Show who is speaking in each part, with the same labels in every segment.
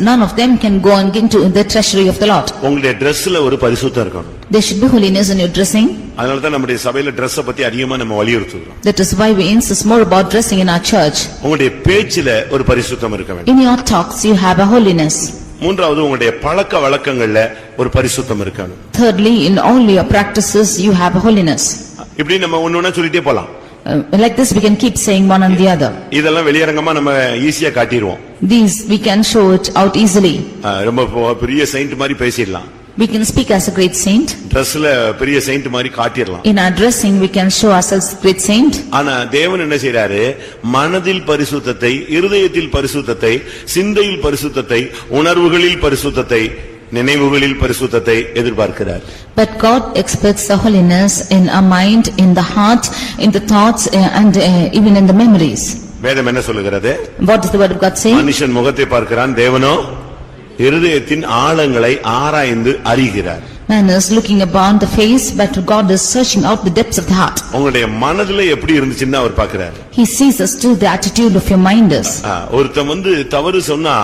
Speaker 1: None of them can go and into the treasury of the Lord.
Speaker 2: உங்களுடைய ட்ரெஸ்ல ஒரு பரிசுத்தம் இருக்கணும்
Speaker 1: There should be holiness in your dressing.
Speaker 2: அதனால தான் நம்முடைய சபையில Dress-அ பத்தி அதிகமா நம்ம வலியுறுத்துகிறோம்
Speaker 1: That is why we insist more about dressing in our church.
Speaker 2: உங்களுடைய பேச்சில ஒரு பரிசுத்தம் இருக்க வேண்டும்
Speaker 1: In your talks, you have a holiness.
Speaker 2: மூன்றாவது உங்களுடைய பழக்க வழக்கங்கள்ல ஒரு பரிசுத்தம் இருக்கணும்
Speaker 1: Thirdly, in all your practices, you have a holiness.
Speaker 2: இப்படி நம்ம ஒண்ணு சொல்லிட்டே போலாம்
Speaker 1: Uh, Like this, we can keep saying one and the other.
Speaker 2: இதெல்லாம் வெளியரங்கமா நம்ம ஈஸியா காட்டிடுவோம்
Speaker 1: These, we can show it out easily.
Speaker 2: ரொம்ப பெ- பெரிய செயிண்ட் மாதிரி பேசிடலாம்
Speaker 1: We can speak as a great saint.
Speaker 2: Dress-ல பெரிய செயிண்ட் மாதிரி காட்டிடலாம்
Speaker 1: In our dressing, we can show ourselves great saint.
Speaker 2: ஆனா தேவன் என்ன செய்றாரு மனதில் பரிசுத்தத்தை இருதயத்தில் பரிசுத்தத்தை சிந்தையில் பரிசுத்தத்தை உணர்வுகளில் பரிசுத்தத்தை நினைவுகளில் பரிசுத்தத்தை எதிர்பார்க்கிறார்
Speaker 1: But God expects the holiness in our mind, in the heart, in the thoughts, uh, and uh, even in the memories.
Speaker 2: வேதம் என்ன சொல்லுகிறது
Speaker 1: What does the word of God say?
Speaker 2: மனுஷன் முகத்தை பார்க்கிறான் தேவனோ இருதயத்தின் ஆழங்களை ஆராய்ந்து அறிகிறார்
Speaker 1: Man is looking upon the face, but God is searching out the depths of the heart.
Speaker 2: உங்களுடைய மனதுல எப்படி இருந்துச்சுன்னு அவர் பார்க்கிறார்
Speaker 1: He sees us to the attitude of your mind is.
Speaker 2: ஆ, ஒருத்தன் வந்து தவறு சொன்னா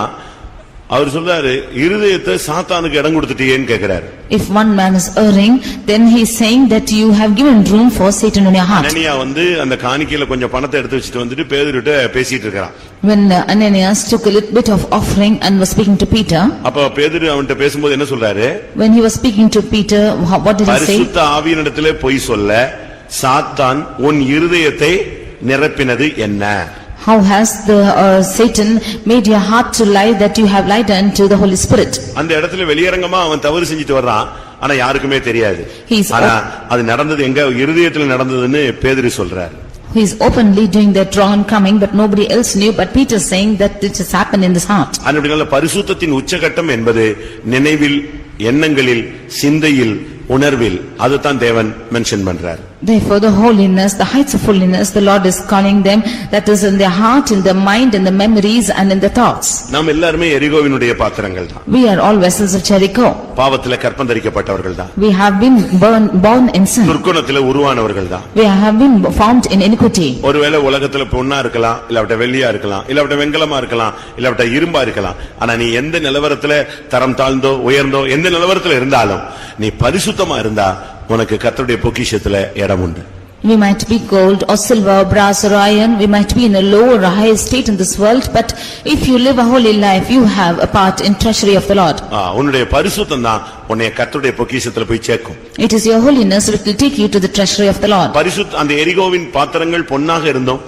Speaker 2: அவர் சொல்றாரு இருதயத்தை சாத்தானுக்கு இடம் கொடுத்துட்டியேன்னு கேக்குறாரு
Speaker 1: If one man is erring, then he is saying that you have given room for Satan in your heart.
Speaker 2: அனனியா வந்து அந்த காணிக்கையில கொஞ்சம் பணத்தை எடுத்து வச்சுட்டு வந்துட்டு பேதுருட்ட பேசிட்டு இருக்கிறான்
Speaker 1: When uh, Ananias took a little bit of offering and was speaking to Peter,
Speaker 2: அப்ப பேதுரு அவன்கிட்ட பேசும்போது என்ன சொல்றாரு
Speaker 1: when he was speaking to Peter, wha- what did he say?
Speaker 2: பரிசுத்த ஆவியனிடத்திலே பொய் சொல்ல சாத்தான் உன் இருதயத்தை நிரப்பினது என்ன
Speaker 1: How has the uh, Satan made your heart to lie that you have lied unto the Holy Spirit?
Speaker 2: அந்த இடத்துல வெளியரங்கமா அவன் தவறு செஞ்சுட்டு வர்றான் ஆனா யாருக்குமே தெரியாது
Speaker 1: He's-
Speaker 2: ஆனா அது நடந்தது எங்க இருதயத்துல நடந்ததுன்னு பேதுரு சொல்றாரு
Speaker 1: He is openly doing that wrong and coming, but nobody else knew, but Peter is saying that it has happened in his heart.
Speaker 2: அதனுடைய பரிசுத்தத்தின் உச்சகட்டம் என்பது நினைவில் எண்ணங்களில் சிந்தையில் உணர்வில் அதுதான் தேவன் மென்ஷன் பண்றார்
Speaker 1: Therefore, the holiness, the heights of holiness, the Lord is calling them, that is in their heart, in their mind, in the memories and in the thoughts.
Speaker 2: நாம் எல்லாருமே எரிகோவினுடைய பாத்திரங்கள் தான்
Speaker 1: We are all vessels of Jericho.
Speaker 2: பாவத்துல கற்பந்தரிக்கப்பட்டவர்கள் தான்
Speaker 1: We have been born, born in sin.
Speaker 2: துர்க்குணத்துல உருவானவர்கள் தான்
Speaker 1: We have been formed in iniquity.
Speaker 2: ஒருவேளை உலகத்துல பொண்ணா இருக்கலாம் இல்லாவிட்ட வெள்ளியா இருக்கலாம் இல்லாவிட்ட வெண்கலமா இருக்கலாம் இல்லாவிட்ட இரும்பா இருக்கலாம் ஆனா நீ எந்த நிலவரத்துல தரம் தாழ்ந்தோ உயர்ந்தோ எந்த நிலவரத்துல இருந்தாலும் நீ பரிசுத்தமா இருந்தா உனக்கு கர்த்தருடைய பொக்கிஷத்துல இடம் உண்டு
Speaker 1: We might be gold or silver, brass or iron, we might be in a low or a high state in this world, but if you live a holy life, you have a part in treasury of the Lord.
Speaker 2: ஆ, உன்னுடைய பரிசுத்தம் தான் உன்னை கர்த்தருடைய பொக்கிஷத்துல போய் சேர்க்கும்
Speaker 1: It is your holiness which will take you to the treasury of the Lord.
Speaker 2: பரிசுத்த அந்த எரிகோவின் பாத்திரங்கள் பொன்னாக இருந்தும்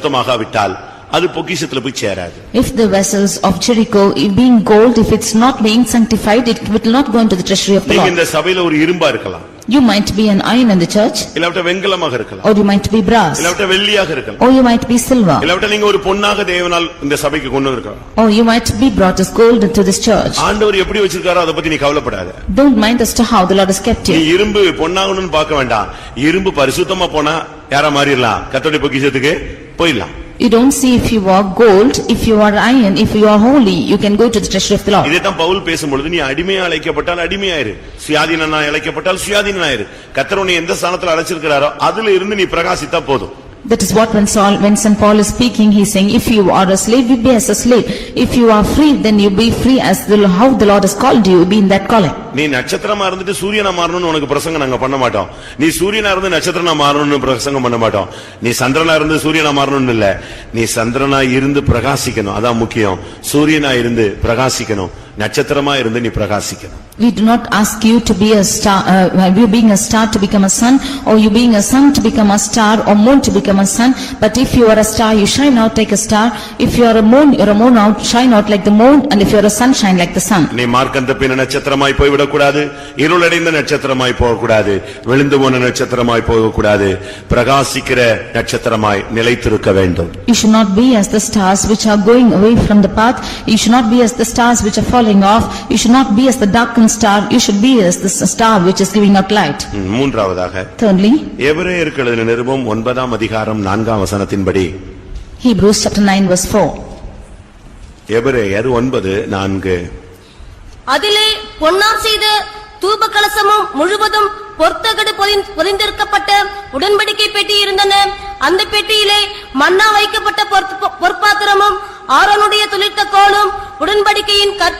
Speaker 2: பரிசுத்தமாகாவிட்டால் அது பொக்கிஷத்துல போய் சேராது
Speaker 1: If the vessels of Jericho if being gold, if it's not being sanctified, it will not go into the treasury of the
Speaker 2: நீங்க
Speaker 1: Lord.
Speaker 2: இந்த சபையில ஒரு இரும்பா இருக்கலாம்
Speaker 1: You might be an iron in the church,
Speaker 2: இல்லாவிட்ட வெண்கலமாக இருக்கலாம்
Speaker 1: or you might be brass,
Speaker 2: இல்லாவிட்ட வெள்ளியாக இருக்கலாம்
Speaker 1: or you might be silver,
Speaker 2: இல்லாவிட்ட நீங்க ஒரு பொன்னாக தேவனால் இந்த சபைக்கு கொண்டு இருக்கலாம்
Speaker 1: or you might be brought as gold into this church.
Speaker 2: ஆண்டவர் எப்படி வச்சிருக்காரோ அதை பத்தி நீ கவலைப்படாத
Speaker 1: Don't mind as to how the Lord has kept
Speaker 2: நீ
Speaker 1: you.
Speaker 2: இரும்பு பொன்னாகணும்னு பார்க்க வேண்டாம் இரும்பு பரிசுத்தமா போனா யாரா மாறிடலாம் கத்தோடைய பொக்கிஷத்துக்கு போயிடலாம்
Speaker 1: You don't see if you are gold, if you are iron, if you are holy, you can go to the treasury of the Lord.
Speaker 2: இதைத்தான் பவுல் பேசும்பொழுது நீ அடிமையா அழைக்கப்பட்டால் அடிமையாயிரு சுயாதீனா அழைக்கப்பட்டால் சுயாதீனாயிரு கத்தர் உன்னை எந்த ஸ்தானத்துல அழைச்சிருக்கிறாரோ அதுல இருந்து நீ பிரகாசித்தா போதும்
Speaker 1: That is what when Saul, when Saint Paul is speaking, he is saying, if you are a slave, you be as a slave. If you are free, then you be free as the, how the Lord has called you, be in that calling.
Speaker 2: நீ நட்சத்திரமா இருந்துட்டு சூரியனா மாறணும்னு உனக்கு பிரசங்கம் நாங்க பண்ண மாட்டோம் நீ சூரியனா இருந்து நட்சத்திரனா மாறணும்னு பிரசங்கம் பண்ண மாட்டோம் நீ சந்திரனா இருந்து சூரியனா மாறணும்னு இல்ல நீ சந்திரனா இருந்து பிரகாசிக்கணும் அதான் முக்கியம் சூரியனா இருந்து பிரகாசிக்கணும் நட்சத்திரமா இருந்து நீ பிரகாசிக்கணும்
Speaker 1: We do not ask you to be a star, uh, you being a star to become a sun, or you being a sun to become a star, or moon to become a sun. But if you are a star, you shine out like a star. If you are a moon, you are a moon out, shine out like the moon, and if you are a sun, shine like the sun.
Speaker 2: நீ மார்க்கந்த பின்ன நட்சத்திரமாய் போய்விடக்கூடாது இருளடைந்த நட்சத்திரமாய் போகக்கூடாது விழுந்து போன நட்சத்திரமாய் போகக்கூடாது பிரகாசிக்கிற நட்சத்திரமாய் நிலைத்திருக்க வேண்டும்
Speaker 1: You should not be as the stars which are going away from the path. You should not be as the stars which are falling off. You should not be as the darkened star. You should be as the s- star which is giving out light.
Speaker 2: ம், மூன்றாவதாக
Speaker 1: Thirdly,
Speaker 2: எபிரேயருக்கு எழுதின நிருபம் ஒன்பதாம் அதிகாரம் நான்காம் வசனத்தின்படி
Speaker 1: Hebrews chapter 9 verse 4.
Speaker 2: எபிரேயர் ஒன்பது நான்கு
Speaker 3: அதிலே பொன்னால் செய்த தூப கலசமும் முழுவதும் பொற்தகடு பொதி- பொதிந்திருக்கப்பட்ட உடன்படிக்கை பெட்டி இருந்தன அந்த பெட்டியிலே மன்னா வைக்கப்பட்ட பொற்- பொற்பாத்திரமும் ஆரோனுடைய துளிர்த்த கோலும் உடன்படிக்கையின் கற்ப